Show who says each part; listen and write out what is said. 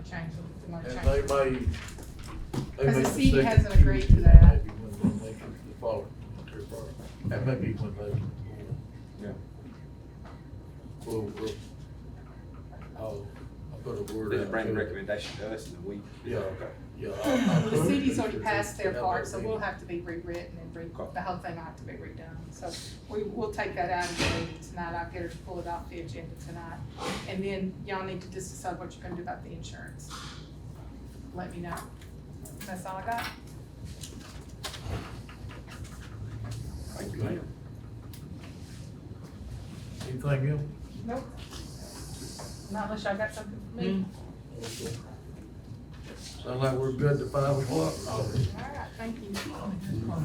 Speaker 1: change, it, we wanna
Speaker 2: And
Speaker 1: change.
Speaker 2: they
Speaker 1: it.
Speaker 2: may. they
Speaker 1: Because the
Speaker 2: may
Speaker 1: city
Speaker 2: second
Speaker 1: hasn't agreed to
Speaker 2: Tuesday,
Speaker 1: that.
Speaker 2: Maybe when they make it the following, or following. that may be when they.
Speaker 3: Yeah.
Speaker 2: Well, we'll, I'll, I'll put a word out.
Speaker 3: They'll bring the
Speaker 2: to-
Speaker 3: recommendation to us in a week.
Speaker 2: Yeah, yeah.
Speaker 1: Well, The city's already passed their part, so we'll have to be rewritten and re,
Speaker 3: Okay.
Speaker 1: the whole thing will have to be redone. So we, we'll take that out of the meeting tonight, I'll get her to pull it off the agenda tonight. And then y'all need to just decide what you're gonna do about the insurance. Let me know. That's all I got.
Speaker 3: Thank you, ma'am.
Speaker 2: Anything else?
Speaker 1: Nope. Not unless y'all got something for me.
Speaker 2: Okay. Sound like we're good to five o'clock? Mm-hmm.
Speaker 1: All right, thank you.